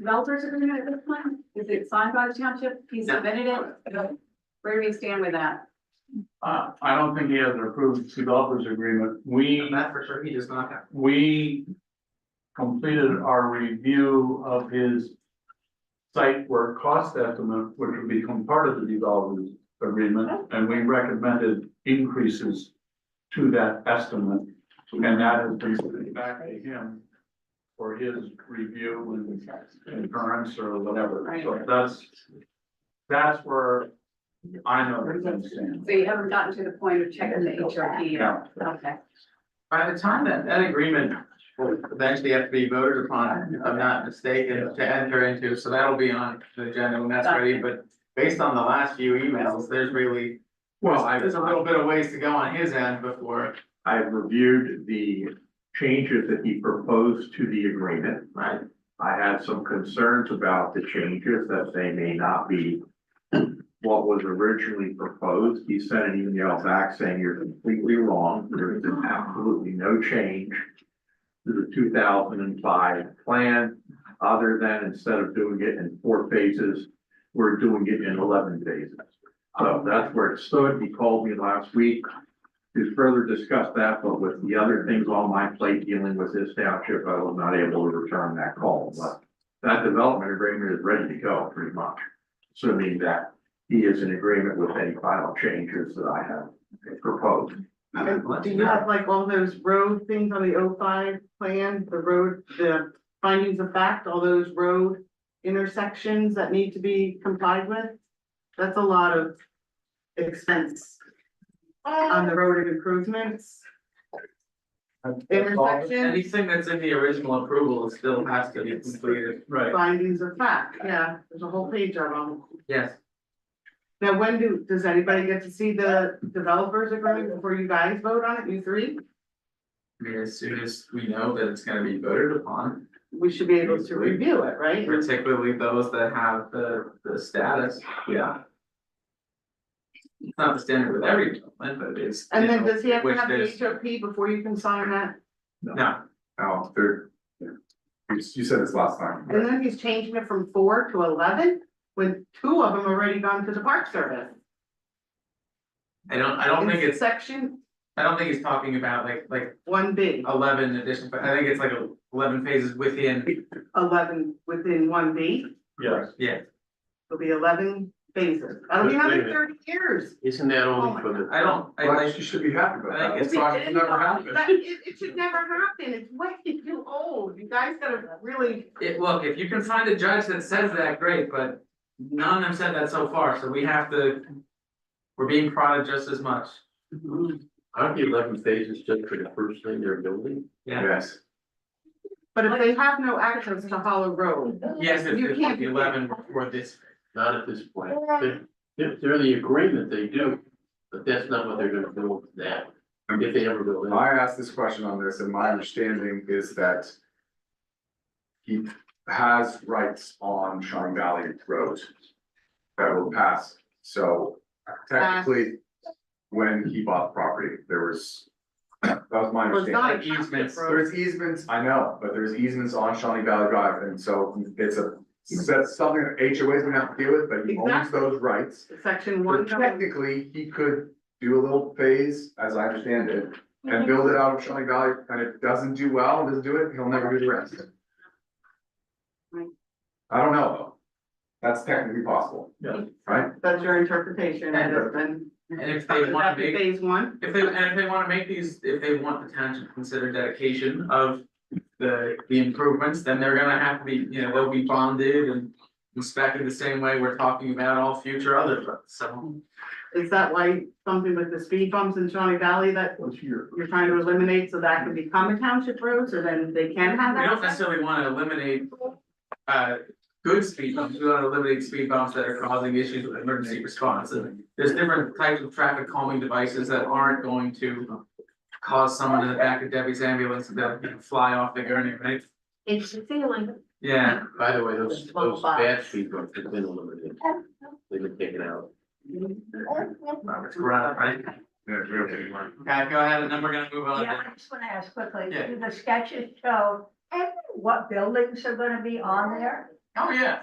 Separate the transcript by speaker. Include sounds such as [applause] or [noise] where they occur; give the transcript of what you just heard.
Speaker 1: developers agreement at this point? Is it signed by the township? He
Speaker 2: No.
Speaker 1: submitted it? Where do we stand with that?
Speaker 3: Uh, I don't think he has an approved developers agreement. We,
Speaker 2: That for sure, he does not have.
Speaker 3: we completed our review of his site work cost estimate, which would become part of the developers agreement, and we recommended increases to that estimate, and that has been sent back to him for his review and concurrence or whatever. So
Speaker 1: Right.
Speaker 3: that's, that's where I know that things stand.
Speaker 1: So you haven't gotten to the point of checking the HRP?
Speaker 3: Yeah.
Speaker 1: Okay.
Speaker 2: By the time that that agreement will eventually have to be voted upon, if I'm not mistaken, to enter into, so that'll be on the agenda when that's ready, but based on the last few emails, there's really,
Speaker 4: Well, I,
Speaker 2: there's a little bit of ways to go on his end before,
Speaker 4: I reviewed the changes that he proposed to the agreement.
Speaker 2: right?
Speaker 4: I had some concerns about the changes that they may not be what was originally proposed. He sent an email back saying you're completely wrong. There is absolutely no change to the two thousand and five plan, other than instead of doing it in four phases, we're doing it in eleven phases. So that's where it stood. He called me last week to further discuss that, but with the other things on my plate dealing with this township, I was not able to return that call. But that development agreement is ready to go pretty much, assuming that he is in agreement with any final changes that I have proposed.
Speaker 5: Do you have like all those road things on the O5 plan, the road, the findings of fact, all those road intersections that need to be complied with? That's a lot of expense on the road improvements. Intersections,
Speaker 2: Anything that's in the original approval still has to be completed.
Speaker 3: Right.
Speaker 5: findings of fact, yeah, there's a whole page on them.
Speaker 2: Yes.
Speaker 5: Now, when do, does anybody get to see the developers agreement before you guys vote on it, you three?
Speaker 2: I mean, as soon as we know that it's gonna be voted upon,
Speaker 5: We should be able to review it, right?
Speaker 2: particularly those that have the, the status, yeah. It's not the standard with every development, but it's.
Speaker 5: And
Speaker 2: you
Speaker 5: then
Speaker 2: know,
Speaker 5: does he have to
Speaker 2: which
Speaker 5: have the
Speaker 2: there's-
Speaker 5: H O P before you can sign that?
Speaker 2: No,
Speaker 6: Oh, third. You you said this last time.
Speaker 5: And then he's changing it from four to eleven, with two of them already gone to the park service.
Speaker 2: I don't, I don't think
Speaker 5: In
Speaker 2: it's,
Speaker 5: Section
Speaker 2: I don't think he's talking about like, like
Speaker 5: one B,
Speaker 2: eleven additions, but I think it's like eleven phases within,
Speaker 5: eleven within one B,
Speaker 3: Yes.
Speaker 2: yeah.
Speaker 5: it'll be eleven phases, that'll be another thirty years.
Speaker 7: Isn't that
Speaker 5: Oh my
Speaker 7: only for the?
Speaker 2: I don't, I
Speaker 6: Well,
Speaker 2: like,
Speaker 6: you should be happy about
Speaker 2: I
Speaker 6: that.
Speaker 2: think
Speaker 6: It's not, it's never happened.
Speaker 5: That- it, it should never happen, it's way too old, you guys gotta really,
Speaker 2: it, look, if you can find a judge that says that, great, but none have said that so far, so we have to. We're being prodded just as much,
Speaker 7: Aren't the eleven phases just for the first thing they're building?
Speaker 2: yeah,
Speaker 6: Yes.
Speaker 5: but if they have no access to Hollow Road,
Speaker 2: yes, if
Speaker 5: You
Speaker 2: if
Speaker 5: can't-
Speaker 2: the eleven were this,
Speaker 7: Not at this point. They're- They're, they're the agreement they do, but that's not what they're gonna build now, if they ever build it.
Speaker 6: I asked this question on this and my understanding is that he has rights on Sean Valley Road that will pass. So technically, when he bought the property, there was, [clears throat] that was my
Speaker 5: was
Speaker 6: understanding.
Speaker 5: not a
Speaker 2: Like easements,
Speaker 5: township road.
Speaker 6: There's easements, I know, but there's easements on Shawnee Valley Drive, and so it's a, that's something that HOA's gonna have to deal with, but he owns
Speaker 5: Mm-hmm. Exactly.
Speaker 6: those rights.
Speaker 5: Section
Speaker 6: But
Speaker 5: one.
Speaker 6: Technically, he could do a little phase, as I understand it,
Speaker 5: Mm-hmm.
Speaker 6: and build it out of Shawnee Valley, and if it doesn't do well, doesn't do it, he'll never do the rest.
Speaker 5: Right.
Speaker 6: I don't know, though. That's technically possible.
Speaker 3: Yeah.
Speaker 6: Right?
Speaker 5: That's your interpretation, and it's been.
Speaker 2: and uh, if they wanna
Speaker 5: That's
Speaker 2: make.
Speaker 5: Phase one,
Speaker 2: If they, and if they wanna make these, if they want the town to consider dedication of the, the improvements, then they're gonna have to be, you know, they'll be bonded and. Inspected the same way we're talking about all future other, roads. so,
Speaker 5: is that why something with the speed bumps in Shawnee Valley that
Speaker 4: What's your?
Speaker 5: you're trying to eliminate so that can become a township road, so then they can have
Speaker 2: we don't
Speaker 5: that.
Speaker 2: necessarily wanna eliminate. Uh, good speed bumps, we wanna eliminate speed bumps that are causing issues with emergency response, and there's different types of traffic calming devices that aren't going to. Cause someone in the back of Debbie's ambulance to you know, fly off the gurney, right?
Speaker 8: It's the feeling.
Speaker 2: Yeah,
Speaker 7: By the way, those,
Speaker 8: Well,
Speaker 7: those
Speaker 8: but-
Speaker 7: bad speed bumps have been eliminated, they've been taken out.
Speaker 2: Robert's right, right?
Speaker 6: Yeah, we're okay.
Speaker 2: Okay, go ahead, and then we're gonna move on.
Speaker 8: Yeah,
Speaker 2: to-
Speaker 8: I just wanna ask quickly,
Speaker 2: Yeah.
Speaker 8: do the sketches show what buildings are gonna be on there?
Speaker 2: Oh, yeah.